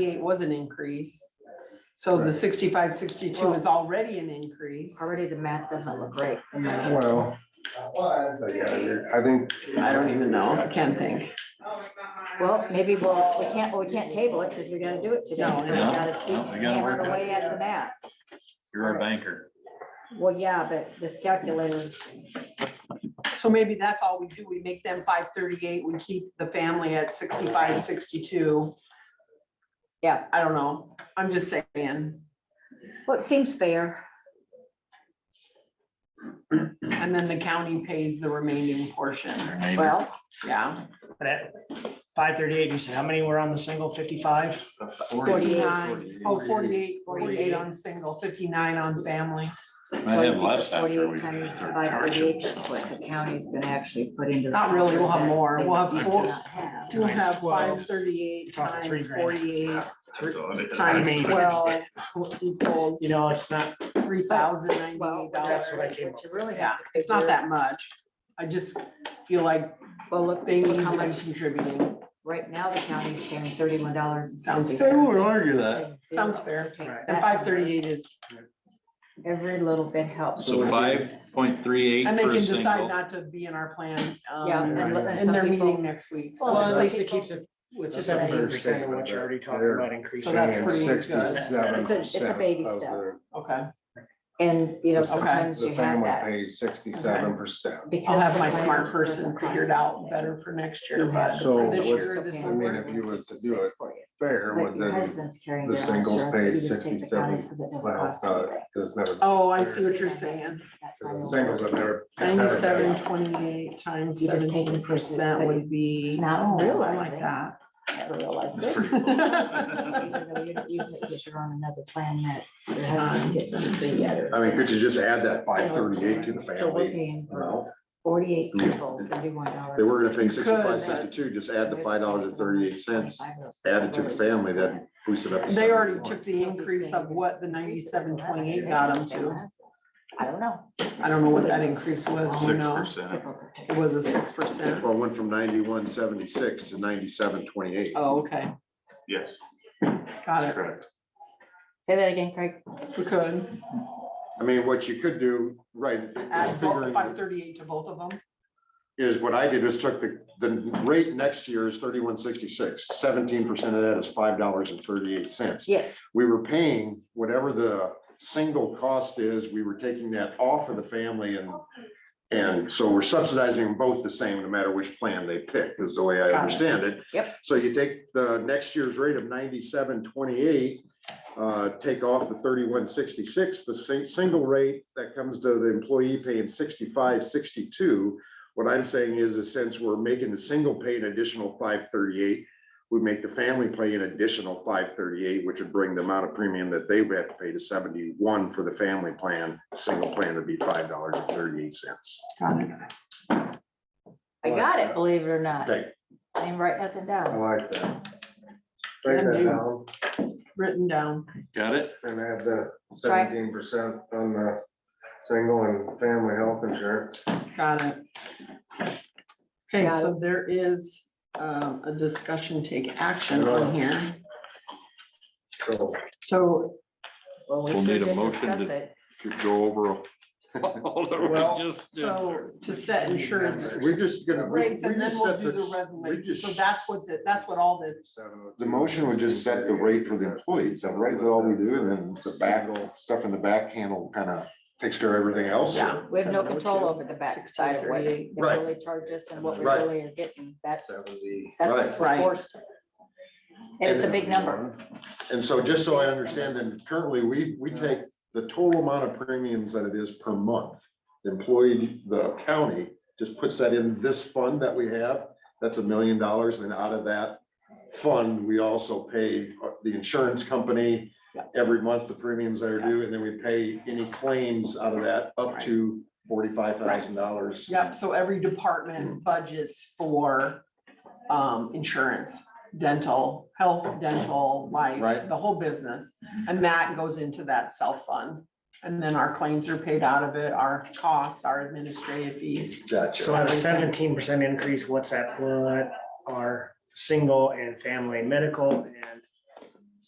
Eight was an increase. So the Right. sixty-five, sixty-two is already an increase. Already the math doesn't look right. Well. I think, I don't even know. I can't think. Well, maybe we'll, we can't, we can't table it because we gotta do it today. So we No, gotta keep no, we gotta hammering work it out. away at the math. You're our banker. Well, yeah, but this calculator's, So maybe that's all we do. We make them five thirty-eight. We keep the family at sixty-five, sixty-two. yeah, I don't know. I'm just saying. well, it seems fair. And then the county pays the remaining portion. Your neighbor. Well, Yeah. But at five thirty-eight, you said how many were on the single fifty-five? Forty-nine. Oh, 48 48 on single, fifty-nine on family. so I you had get less the after we. forty-eight did our times by thirty-eight, charges. which is what the county's gonna actually put into. the Not really, we'll have contract more. they We'll have do four- not have. We'll Times have 12. five thirty-eight Talking three times grand. forty-eight That's all it is. times mean- twelve equals You know, it's not, three thousand ninety-eight Well, dollars. that's That's what what I came up you really Yeah, have. to it's not figure. that much. I just feel like Well, look, they need look to how be much, contributing. right now the county's paying thirty-one dollars. Sounds I wouldn't argue that. Sounds fair. Take Right. And that five number. thirty-eight is, Every little bit helps. So five point three eight and they for a can decide single. not to be in our plan. um, Yeah, and, and In some their meeting people, next week. Well, So well, that's at what least it people- keeps it with the Just saying. seventeen percent of what you're already talking They're- about increasing. So that's saying pretty good. 67% It's a- it's a baby of step. the- Okay, and you know, Okay. sometimes The you have family that. pays sixty-seven percent. because I'll have the my plan smart doesn't person figure it cost out anything. better for next year, You have but to So for this find the what's- year, extra this pay. I will mean, work. if you was to do 166 it, for you. Fair, But would your then, husband's carrying the their own singles insurance, but paid you just take the 67 county's 'cause it doesn't well, cost uh, anything. there's never, Oh, I see what you're saying. singles have never. just never paid. Ninety-seven, twenty-eight times You just take seventeen the person, percent but would be. Now I don't No, I realize like it. that. Never realized That's it. pretty cool. Even though you're using it because you're on another plan that your husband gets something better. I mean, could you just add that five thirty-eight to the So we're family? paying you know? forty-eight I mean, people, thirty-one dollars. They were gonna pay You could, but- sixty-five, sixty-two, just add the five dollars and thirty-eight cents, added to the family, that boosted up. to They already 71. took the increase of what the ninety-seven, twenty-eight got them to. I don't know. I don't know what that increase was, you Six know, percent. it was a six percent. Well, it went from ninety-one seventy-six to ninety-seven twenty-eight. Oh, okay, Yes, got it. correct. Say that again, Craig. We could I mean, what you could do, right, add figuring- five thirty-eight to both of them. is what I did is took the, the rate next year is thirty-one sixty-six. Seventeen percent of that is five dollars and thirty-eight cents. Yes, we were paying whatever the single cost is, we were taking that off of the family and. And so we're subsidizing them both the same, no matter which plan they pick, is the way Got I it. understand it. Yep. So you take the next year's rate of ninety-seven twenty-eight, uh, take off the thirty-one sixty-six, the same, single rate that comes to the employee paying sixty-five sixty-two. What I'm saying is, is since we're making the single pay an additional five thirty-eight, we make the family pay an additional five thirty-eight, which would bring the amount of premium that they would have to pay to seventy-one for the family plan. Single plan would be five dollars and thirty-eight cents. Got it. I got uh, it, believe it or not. Okay, I didn't write nothing I down. like that. Yeah, Break that dude. down Written down. Got it? and add the Sorry. seventeen percent on the single and family health insurance. Got it. Okay, Got so there is um, a discussion, take action on here. So So Well, we We'll sure need a did motion to- discuss it. Could go over. all that we Well, just did So to set insurance we're just gonna. we- rates we and then just we'll set do the we resolution. just- So that's what, the- that's what all this, The motion would just set the rate for the employees, that right is all we do, and then the back, stuff in the back handle kind of takes care of everything else. yeah. We have no control 702, over the backside of what they 1638. Right. really charge us and what we Right. really are getting. That's, Seventy. that's Right. what's forced. And it's a big number. And so just so I understand, then currently, we, we take the total amount of premiums that it is per month. The Employee, the county just puts that in this fund that we have, that's a million dollars, and out of that fund, we also pay uh, the insurance company every month, the premiums that are due, and then we pay any claims out of that up to forty-five thousand dollars. Yep, so every department budgets for um insurance, dental, health, dental, life, Right. the whole business. And that goes into that self fund. And then our claims are paid out of it, our costs, our administrative fees. So Gotcha. on a seventeen percent increase, what's that, what are single and family medical and